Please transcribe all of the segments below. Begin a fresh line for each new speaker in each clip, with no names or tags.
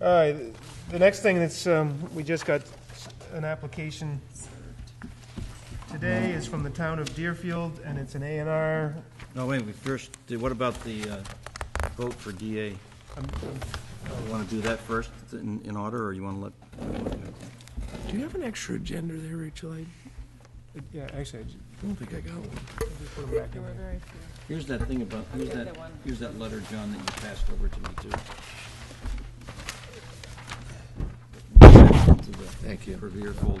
All right, the next thing that's, um, we just got an application today is from the town of Deerfield, and it's an A and R.
No, wait, we first, did- what about the uh, vote for DA? You want to do that first in in order, or you want to let?
Do you have an extra agenda there, Rachel? I
Yeah, actually, I ju-
don't think I got one.
just put them back in there.
Here's that thing about, here's that, here's that letter, John, that you passed over to me, too. Thank you. Revere
No,
folder.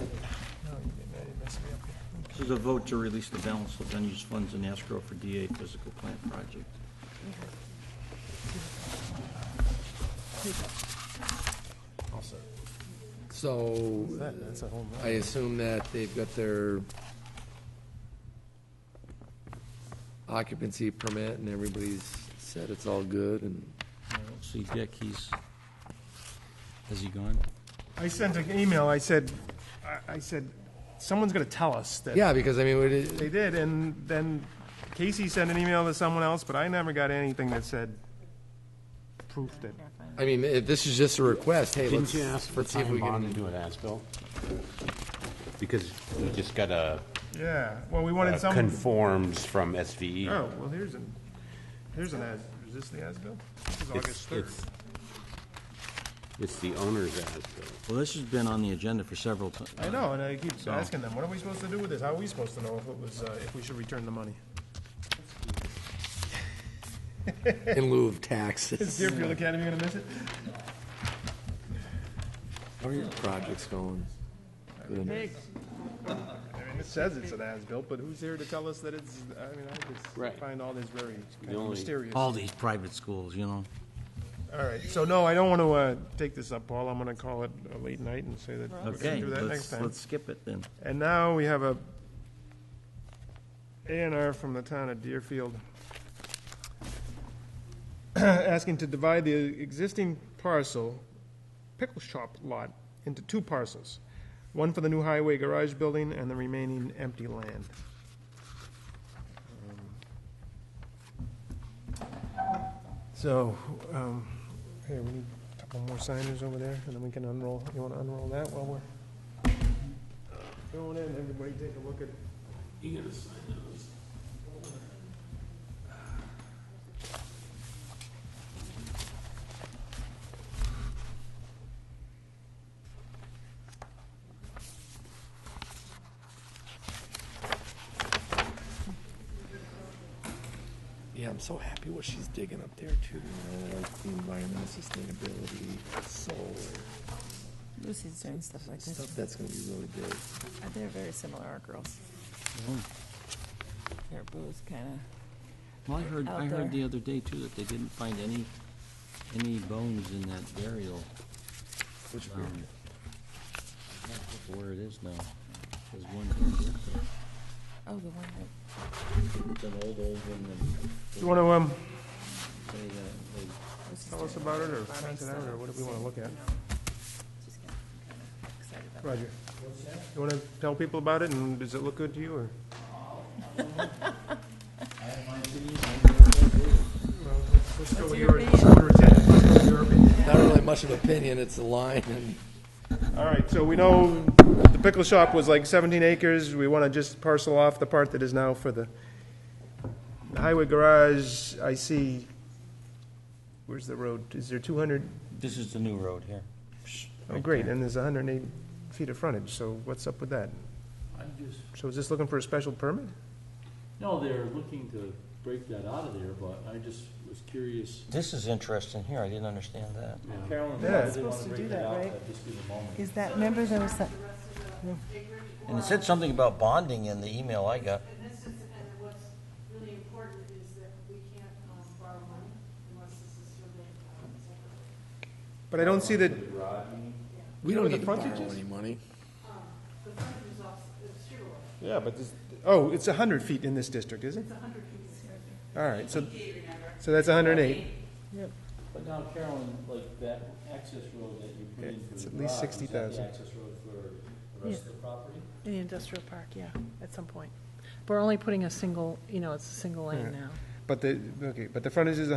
you didn't. I didn't mess it up.
This is a vote to release the balance of unused funds in escrow for DA physical plant project.
So
That- That's a home
I
run.
assume that they've got their occupancy permit and everybody's said it's all good and
I don't See, Dick, he's, has he gone?
I sent an email, I said, I- I said, someone's gonna tell us that
yeah, because I mean, we
They
did-
did, and then Casey sent an email to someone else, but I never got anything that said proof that,
I mean, if this is just a request, hey,
Didn't
let's,
you ask for
let's see if we
time bond and
can.
do an as-built? Because we just got a
yeah, well, we
a
wanted some, oh,
conforms from E. SVE.
well, here's an, here's an as, is this the as-built? This is
It's-
August 3rd.
it's- It's the owner's as-built.
Well, this has been on the agenda for several times.
I know, and I keep asking them, what are we supposed to do with this? How are we supposed to know if it was, uh, if we should return the money?
In lieu of
Is
taxes,
Deerfield Academy gonna miss it?
how are your projects going? Good.
I mean, it says it's an as-built, but who's here to tell us that it's, I mean, I
Right.
just find all this very kind of
only-
mysterious.
All these private schools, you know?
All right, so no, I don't want to uh, take this up, Paul. I'm going to call it a late night and say that we're going
Okay,
to do that next
let's,
time.
let's skip it then.
And now we have a A and R from the town of Deerfield asking to divide the existing parcel, pickle shop lot, into two parcels, one for the new highway garage building and the remaining empty land. So, um, here, we need a couple more signers over there, and then we can unroll, you want to unroll that while we're going in, everybody take a look at.
Yeah, I'm so happy what she's digging up there too, you know, like the environmental sustainability, solar,
Lucy's doing stuff like this.
stuff that's gonna be really big.
Uh, They're very similar, our girls.
Mm-hmm.
They're both kind
Well, I heard, I
Out there.
heard the other day too, that they didn't find any, any bones in that burial. Um, Which burial? Where it is now. There's one here,
of, oh, the one that
it's an old, old one, and
You want to, um,
they, uh, they
Lucy's
tell
doing.
us about it, or
Farming
pass it out, or
stuff.
what do we want to look at?
She's kinda- kinda excited about it.
Roger. You want to tell people about it, and does it look good to you, or? Well, let's- let's go with
your
your- order of ten. Let's go with your opinion.
Not really much of an opinion, it's a line and.
All right, so we know the pickle shop was like 17 acres, we want to just parcel off the part that is now for the the highway garage, I see, where's the road, is there 200?
This is the new road here.
Oh, great, and there's 108 feet of frontage, so what's up with that?
I'm just,
So is this looking for a special permit?
no, they're looking to break that out of there, but I just was curious.
This is interesting here, I didn't understand that.
Carolyn,
Yeah.
I didn't
Supposed
want
to do
to break
that,
that out,
right?
but just give a moment.
Is that, remember there was that,
And it said something about bonding in the email I got.
In this instance, and what's really important is that we can't um, borrow money unless this is surveyed. um, separately.
But I don't see that,
We don't need to borrow
frontages?
any money.
The frontage is off, it's zero.
yeah, but this, oh, it's 100 feet in this district, is it? It's 100 feet. All right, so, so that's 108.
But now Carolyn, like that access road that you put
Yeah,
in for
it's
the
at least
garage, is
60,000.
that the access road for the rest of the property?
in the industrial park, yeah, at some point. We're only putting a single, you know, it's a single lane now.
But the, okay, but the frontage is